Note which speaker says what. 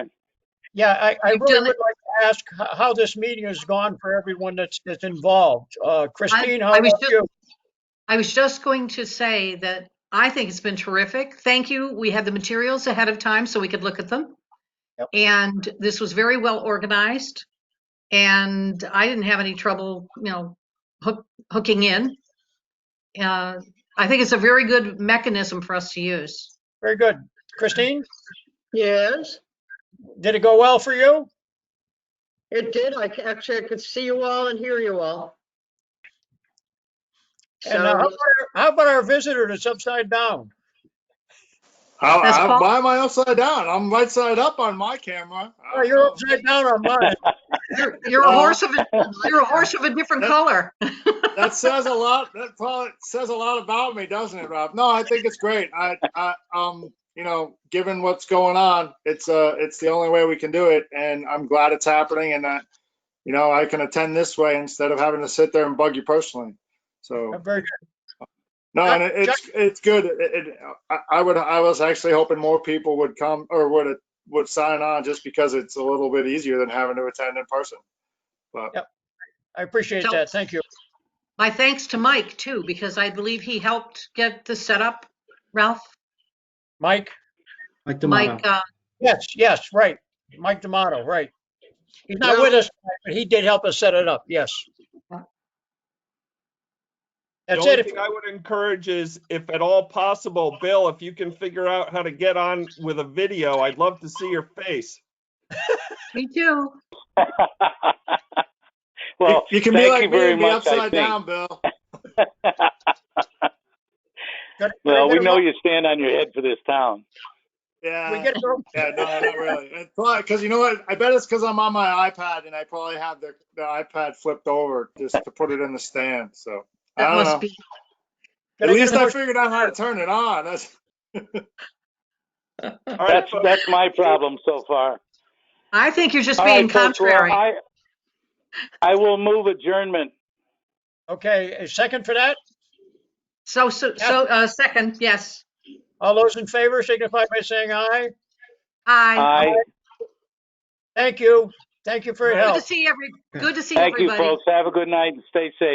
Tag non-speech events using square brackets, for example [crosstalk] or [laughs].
Speaker 1: Yeah, I, I
Speaker 2: You've
Speaker 1: really
Speaker 2: done
Speaker 1: would like to ask h- how this meeting has gone for everyone that's, that's involved. Uh, Christine, how
Speaker 2: I was
Speaker 1: about
Speaker 2: just-
Speaker 1: you?
Speaker 2: I was just going to say that I think it's been terrific. Thank you. We had the materials ahead of time so we could look at them.
Speaker 1: Yep.
Speaker 2: And this was very well organized. And I didn't have any trouble, you know, hook, hooking in. Uh, I think it's a very good mechanism for us to use.
Speaker 1: Very good. Christine,
Speaker 3: Yes,
Speaker 1: did it go well for you?
Speaker 3: it did. I c- actually, I could see you all and hear you all.
Speaker 1: And uh, how
Speaker 3: So,
Speaker 1: about our- how about our visitor that's upside down?
Speaker 4: I,
Speaker 2: That's
Speaker 4: I,
Speaker 2: Paul.
Speaker 4: why am I upside down? I'm right side up on my camera. I
Speaker 1: Oh,
Speaker 4: don't
Speaker 1: you're
Speaker 4: know.
Speaker 1: upside down on mine.
Speaker 2: You're- You're a
Speaker 4: Well-
Speaker 2: horse of, a you're a horse of a different color.
Speaker 4: [laughs] That says a lot. That probably says a lot about me, doesn't it, Rob? No, I think it's great. I, I, um, you know, given what's going on, it's uh, it's the only way we can do it, and I'm glad it's happening, and that, you know, I can attend this way instead of having to sit there and bug you personally. So.
Speaker 1: Oh, Very good.
Speaker 4: No,
Speaker 1: Yeah,
Speaker 4: and it- it's, it's good. It, it, I, I would, I was actually hoping more people would come or would, would sign on just because it's a little bit easier than having to attend in person. But
Speaker 1: I appreciate
Speaker 2: So-
Speaker 1: that. Thank you.
Speaker 2: My thanks to Mike too, because I believe he helped get the setup, Ralph.
Speaker 1: Mike?
Speaker 5: Mike D'Amato.
Speaker 2: Mike, uh,
Speaker 1: Yes, yes, right. Mike D'Amato, right. He's not
Speaker 3: Well-
Speaker 1: with us, tonight, but he did help us set it up, yes. That's
Speaker 6: the
Speaker 1: it.
Speaker 6: only
Speaker 1: If-
Speaker 6: thing I would encourage is, if at all possible, Bill, if you can figure out how to get on with a video, I'd love to see your face.
Speaker 2: me too.
Speaker 4: you-
Speaker 7: Well,
Speaker 4: you can be
Speaker 7: thank you
Speaker 4: like me
Speaker 7: very
Speaker 4: and be
Speaker 7: much, I
Speaker 4: upside
Speaker 7: think.
Speaker 4: down, Bill.
Speaker 7: [laughs]
Speaker 1: gotta-
Speaker 7: Well,
Speaker 1: gotta
Speaker 7: we
Speaker 1: get
Speaker 7: know
Speaker 1: a-
Speaker 7: you stand on your head for this town.
Speaker 1: We
Speaker 4: Yeah,
Speaker 1: get a-
Speaker 4: yeah, no, not
Speaker 2: [laughs]
Speaker 4: really. It's probably, cause you know what? I bet it's cause I'm on my iPad and I probably have the, the iPad flipped over just to put it in the stand, so. I
Speaker 2: That
Speaker 4: don't
Speaker 2: must
Speaker 4: know.
Speaker 2: be,
Speaker 4: At
Speaker 1: gotta get
Speaker 4: least
Speaker 1: a-
Speaker 4: I figured out how to turn it on. That's,
Speaker 6: All right,
Speaker 7: That's,
Speaker 6: folks.
Speaker 7: that's my problem so far.
Speaker 2: I think you're just
Speaker 7: All
Speaker 2: being
Speaker 7: right, folks, well,
Speaker 2: contrary.
Speaker 7: I I will move adjournment.
Speaker 1: Okay, a second for that?
Speaker 2: So, so,
Speaker 1: Yeah.
Speaker 2: so, uh, second, yes.
Speaker 1: All those in favor signify by saying aye.
Speaker 2: Aye.
Speaker 7: Aye.
Speaker 1: Thank you. Thank you for your
Speaker 2: Good
Speaker 1: help.
Speaker 2: to see every, good to see
Speaker 7: Thank
Speaker 2: everybody.
Speaker 7: you, folks. Have a good night and stay safe.